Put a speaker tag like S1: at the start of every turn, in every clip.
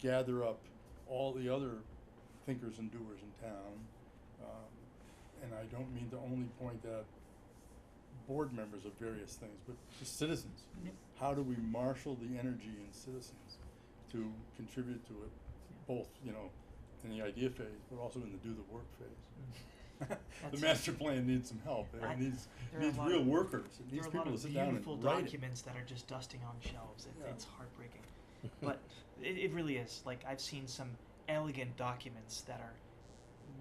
S1: gather up all the other thinkers and doers in town. Um, and I don't mean to only point at board members of various things, but to citizens.
S2: Yep.
S1: How do we marshal the energy in citizens to contribute to it, both, you know, in the idea phase, but also in the do the work phase? The
S2: That's-
S1: master plan needs some help,
S2: I-
S1: it needs,
S2: there are a
S1: needs
S2: lot
S1: real
S2: of-
S1: workers, it
S2: There
S1: needs
S2: are a
S1: people
S2: lot
S1: to
S2: of
S1: sit down
S2: beautiful
S1: and write it.
S2: documents that are just dusting on shelves. It,
S1: Yeah.
S2: It's heartbreaking, but it, it really is. Like I've seen some elegant documents that are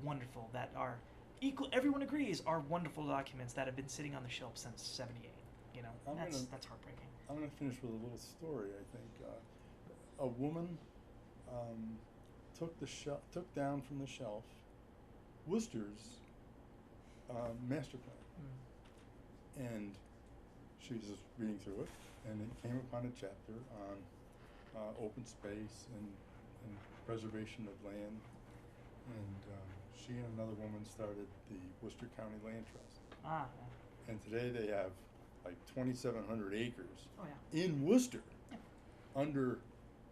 S2: wonderful. That are equal. Everyone agrees are wonderful documents that have been sitting on the shelf since '78. You know,
S1: I'm
S2: that's
S1: gonna-
S2: that's heartbreaking.
S1: I'm gonna finish with a little story. I think uh, a woman um, took the shel- took down from the shelf Worcester's um, master plan,
S2: Hmm.
S1: and she was just reading through it, and it came upon a chapter on uh, open space and, and preservation of land, and um, she and another woman started the Worcester County Land Trust,
S2: Ah,
S1: and today they have like 2,700 acres
S2: yeah. oh yeah.
S1: in Worcester
S2: Yeah.
S1: under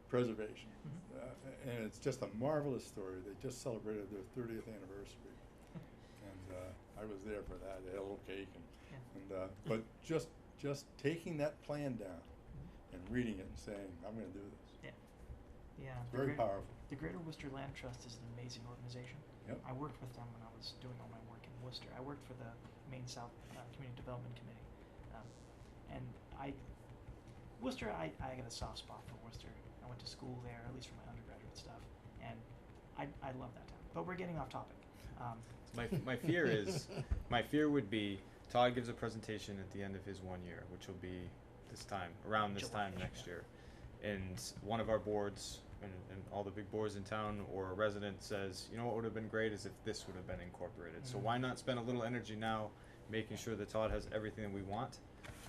S1: preservation. Uh, and it's just a marvelous story. They just celebrated their 30th anniversary. And uh, I was there for that. They had a little cake. And, and uh, but just just taking that plan down and reading it and saying, I'm going to do this.
S2: Yeah,
S1: It's
S2: the
S1: very
S2: Great-
S1: powerful.
S2: The Greater Worcester Land Trust is an amazing organization.
S1: Yep.
S2: I worked with them when I was doing all my work in Worcester. I worked for the Maine South uh, Community Development Committee, um, and I, Worcester, I, I got a soft spot for Worcester. I went to school there, at least for my undergraduate stuff, and I, I love that town. But we're getting off topic. Um,
S3: My, my fear is, my fear would be Todd gives a presentation at the end of his one year, which will be this time, around this
S2: July,
S3: time next
S2: yeah.
S3: year. And one of our boards and, and all the big boards in town or a resident says, you know what would have been great is if this would have been incorporated. So
S1: Mm-hmm.
S2: Mm.
S3: why not spend a little energy now making sure that Todd has everything that we want?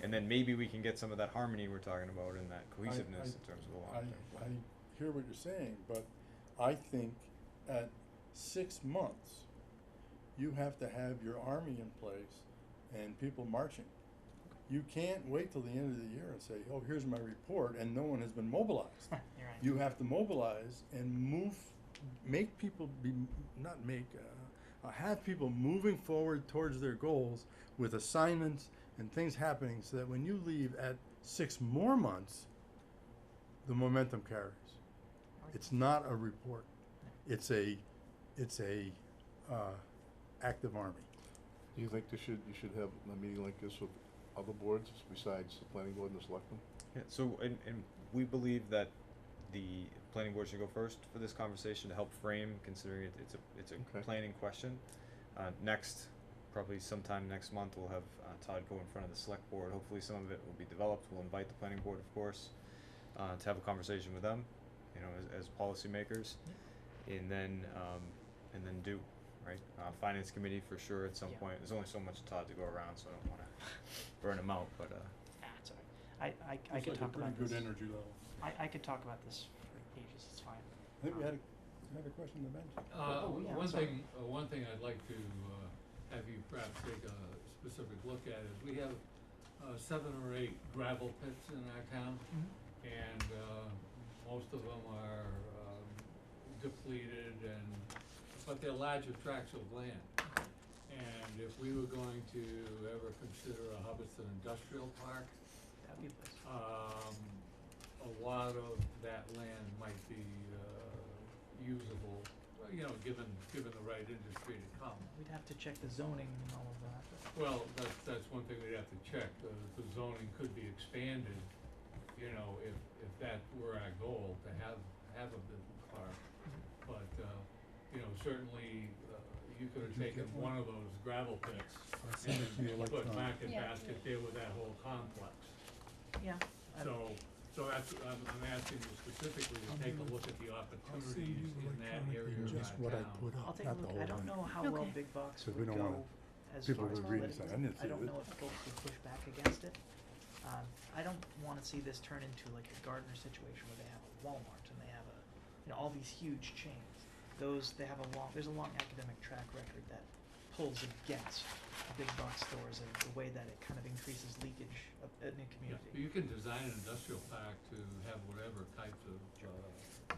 S3: And then maybe we can get some of that harmony we're talking about and that cohesiveness in terms of the
S1: I,
S3: long term.
S1: I hear what you're saying, but I think at six months, you have to have your army in place and people marching. You can't wait till the end of the year and say, oh, here's my report, and no one has been mobilized.
S2: you're right.
S1: You have to mobilize and move, make people be, not make, uh, uh, have people moving forward towards their goals with assignments and things happening so that when you leave at six more months, the momentum carries.
S2: Oh,
S1: It's not a report. It's a, it's a, uh, active army.
S4: Do you think they should, you should have a meeting like this with other boards besides the planning board and the selectmen?
S3: Yeah, so and, and we believe that the planning board should go first for this conversation to help frame, considering it, it's a it's a
S4: Okay.
S3: planning question. Uh, next, probably sometime next month, we'll have uh, Todd go in front of the select board. Hopefully, some of it will be developed. We'll invite the planning board, of course, uh, to have a conversation with them, you know, as, as policymakers, and then um, and then do right uh, finance committee for sure at some
S2: Yeah.
S3: point. There's only so much Todd to go around, so I don't want to burn him out, but. Uh,
S2: Ah, it's all right. I, I, I could talk about
S1: Pretty
S2: this.
S1: good energy level.
S2: I, I could talk about this for ages. It's fine. Um,
S1: I think we had a, we had a question in the bench.
S5: Uh,
S2: Oh, yeah, I'm
S5: one
S2: sorry.
S5: thing, uh, one thing I'd like to, uh, have you perhaps take a specific look at is we have, uh, seven or eight gravel pits in our town.
S2: mhm.
S5: And, uh, most of them are, um, depleted and, but they're larger tracts of land. And if we were going to ever consider a Hubbardston industrial park,
S2: That'd be a place.
S1: Uh,
S5: um, a lot of that land might be, uh, usable, well, you know, given, given the right industry to come.
S2: We'd have to check the zoning and all of that. but-
S5: Well, that's, that's one thing we'd have to check, the, the zoning could be expanded, you know, if, if that were our goal, to have, have a business park. But, uh, you know, certainly, uh, you could have
S1: Did you
S5: taken
S1: get one?
S5: one of those gravel pits
S1: I sent it to you
S5: and put
S1: electronic.
S5: Market
S6: Yeah.
S5: Basket there with that whole complex.
S2: Yeah. I-
S5: So, so that's, I'm, I'm asking you specifically to take a look at the opportunities in that area of our town.
S1: Just what I put
S2: I'll
S1: up,
S2: take a
S1: not the
S2: look.
S1: whole
S2: I
S1: thing.
S2: don't know how
S6: Okay.
S2: well big box
S1: So we
S2: would
S1: don't wanna-
S2: go as
S1: people
S2: far as
S1: would read and say, "I didn't
S2: political. I
S1: see
S2: don't
S1: it."
S2: know if folks would push back against it. Um, I don't wanna see this turn into like a Gardner situation where they have a Walmart and they have a, you know, all these huge chains. Those, they have a long, there's a long academic track record that pulls against big box stores and the way that it kind of increases leakage of, in a
S5: Yeah,
S2: community.
S5: You can design an industrial park to have whatever types of, uh,